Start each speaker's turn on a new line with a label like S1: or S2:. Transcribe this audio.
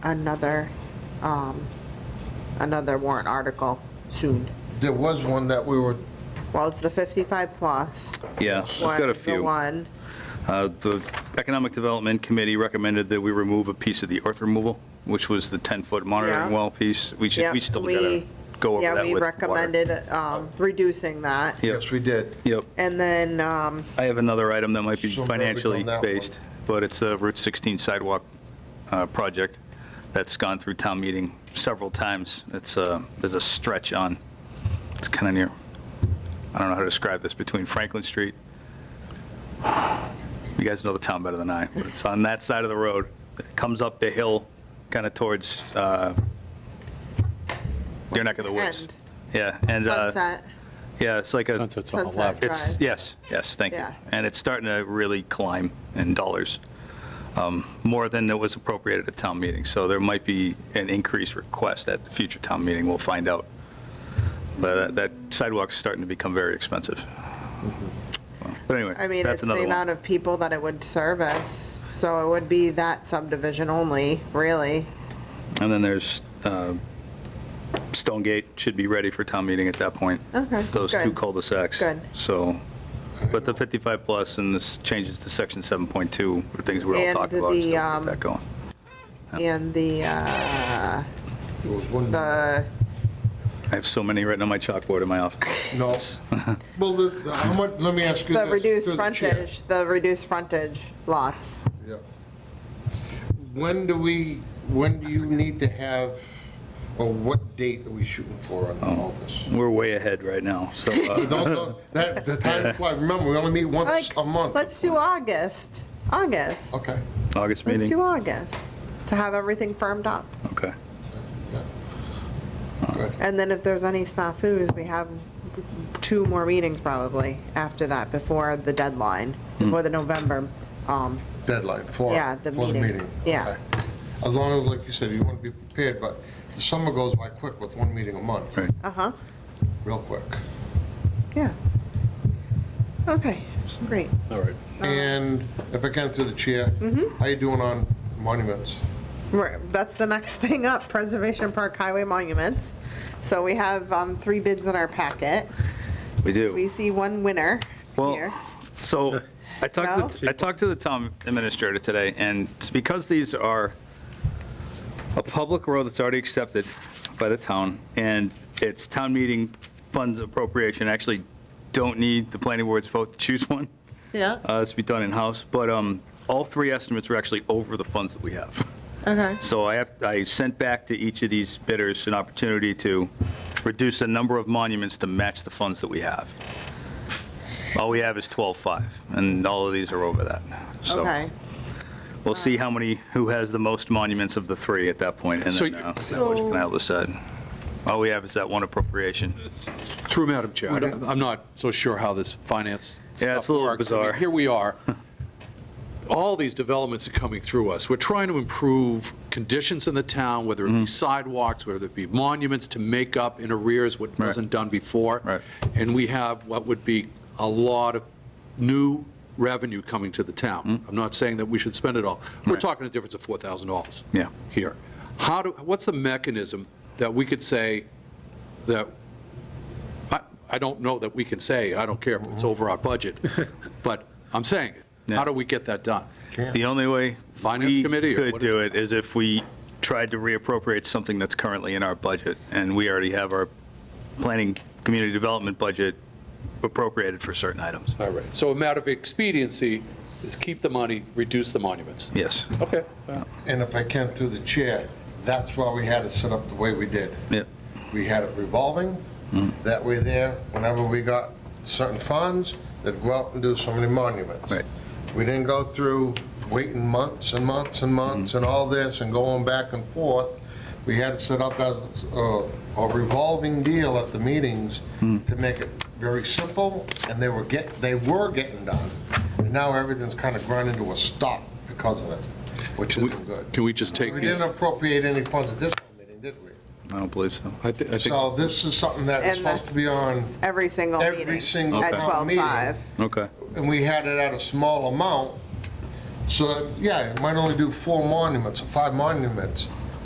S1: another, um, another warrant article soon.
S2: There was one that we were,
S1: Well, it's the 55 plus.
S3: Yeah, I've
S1: one
S3: got a
S1: is The
S3: few.
S1: one,
S3: Uh, The Economic Development Committee recommended that we remove a piece of the earth removal, which was the 10-foot
S1: Yeah.
S3: monitoring well piece. We should,
S1: Yep,
S3: we still gotta
S1: we-
S3: go over that
S1: yeah,
S3: with
S1: we
S3: water.
S1: recommended um, reducing that.
S3: Yep,
S2: yes, we did.
S3: yep.
S1: And then, um,
S3: I have another item that might be
S2: So where are we on
S3: financially
S2: that one?
S3: based, but it's a Route 16 sidewalk uh, project that's gone through town meeting several times. It's, uh, there's a stretch on, it's kind of near, I don't know how to describe this, between Franklin Street. You guys know the town better than I, but it's on that side of the road. It comes up the hill, kind of towards uh, your neck of the
S1: End.
S3: woods. Yeah, and, uh,
S1: sunset,
S3: yeah, it's like a.
S4: Sunset's on the
S1: Sunset.
S4: left.
S3: It's,
S1: Drive.
S3: yes, yes, thank you.
S1: Yeah.
S3: And it's starting to really climb in dollars, um, more than it was appropriated at town meeting. So there might be an increased request at the future town meeting, we'll find out. But uh, that sidewalk's starting to become very expensive. But
S1: Mm-hmm. I
S3: anyway,
S1: mean, it's
S3: that's
S1: the
S3: another
S1: amount
S3: one.
S1: of people that it would service, so it would be that subdivision only, really.
S3: And then there's uh, Stonegate, should be ready for town meeting at that point.
S1: Okay,
S3: Those two
S1: good.
S3: cul-de-sacs.
S1: Good.
S3: So, but the 55 plus and this changes to section 7.2, are things we're all
S1: And
S3: talking about, and still
S1: the,
S3: get
S1: um,
S3: that going.
S1: And the, uh,
S2: There was one,
S1: the,
S3: I have so many written on my chalkboard in my office.
S2: no. Well, the, the- how much, let me ask you this.
S1: the reduced
S2: through the chair.
S1: frontage, the reduced frontage lots.
S2: Yeah. When do we, when do you need to have, or what date are we shooting for on all this?
S3: We're way ahead right now, so,
S2: Don't,
S3: uh,
S2: don't- that, the time flies, remember, we only meet once
S1: Like,
S2: a month.
S1: let's do August, August.
S2: Okay.
S3: August
S1: Let's do
S3: meeting?
S1: August, to have everything firmed up.
S3: Okay.
S2: yeah. Good.
S1: And then if there's any snafus, we have two more meetings probably after that, before the deadline,
S3: Hmm.
S1: before the November. um,
S2: Deadline for,
S1: Yeah, the
S2: for the
S1: meeting.
S2: meeting.
S1: Yeah.
S2: Okay. As long as, like you said, you want to be prepared, but the summer goes by quick with one meeting a month,
S3: Right.
S1: Uh-huh,
S2: real quick.
S1: yeah. Okay, great.
S4: All right.
S2: And if I can through the chair, how you doing on monuments?
S1: We're- That's the next thing up, Preservation Park Highway Monuments. So we have um, three bids in our packet.
S3: We
S1: We
S3: do.
S1: see one winner
S3: Well,
S1: here.
S3: so, I talked, to-
S1: No?
S3: I talked to the town administrator today, and it's because these are a public road that's already accepted by the town, and it's town meeting funds appropriation, actually don't need the planning board's vote to choose one.
S1: Yeah.
S3: Uh, It's be done in-house, but um, all three estimates are actually over the funds that we have.
S1: Okay.
S3: So I have, I sent back to each of these bidders an opportunity to reduce the number of monuments to match the funds that we have. All we have is 12.5, and all of these are over that. So
S1: Okay.
S3: we'll see how many, who has the most monuments of the three at that point, and
S4: So
S3: then
S4: you-
S3: uh, that was gonna help us out. All we have is that one appropriation.
S4: Through Madam Chair, I don't- I'm not so sure how this finance
S3: Yeah, it's
S4: stuff
S3: a little
S4: works. I mean,
S3: bizarre.
S4: Here we are. All these developments are coming through us. We're trying to improve conditions in the town, whether
S3: Mm-hmm.
S4: it be sidewalks, whether it be monuments, to make up in arrears what
S3: Right.
S4: wasn't done before.
S3: Right.
S4: And we have what would be a lot of new revenue coming to the town. I'm not saying that we should spend it all. We're
S3: Mm-hmm. Right.
S4: talking a difference of $4,000.
S3: Yeah.
S4: Here. How do, what's the mechanism that we could say that I, I don't know that we can say, I don't care if
S2: Mm-hmm.
S4: it's over our budget, but I'm saying it. How
S3: Yeah.
S4: do we get that done?
S3: The only way
S4: Finance
S3: we
S4: committee, or
S3: could
S4: what is
S3: do it is if we tried to reappropriate something that's currently in our budget, and we already have our planning, community development budget appropriated for certain items.
S4: All right, so a matter of expediency is keep the money, reduce the monuments.
S3: Yes.
S4: Okay.
S2: And if I can through the chair, that's why we had it set up the way we did.
S3: Yep. Mm.
S2: We had it revolving, that way there, whenever we got certain funds, they'd go out and do so many monuments.
S3: Right.
S2: We didn't go through waiting months and months and
S3: Mm.
S2: months and all this and going back and forth. We had it set up as a a revolving deal at the meetings
S3: Mm.
S2: to make it very simple, and they were get, they were getting done. And now everything's kind of grinding to a stop because of it, which isn't good.
S4: Can we just take
S2: We
S4: these?
S2: didn't appropriate any funds at this meeting, did we?
S3: I don't believe so.
S4: I thi- I think,
S2: So this is something that was
S1: And the-
S2: supposed to be on,
S1: Every single meeting.
S2: Every single
S1: At
S2: Okay.
S1: 12:05.
S3: Okay.
S2: and we had it at a small amount. So, yeah, it might only do four monuments or five monuments,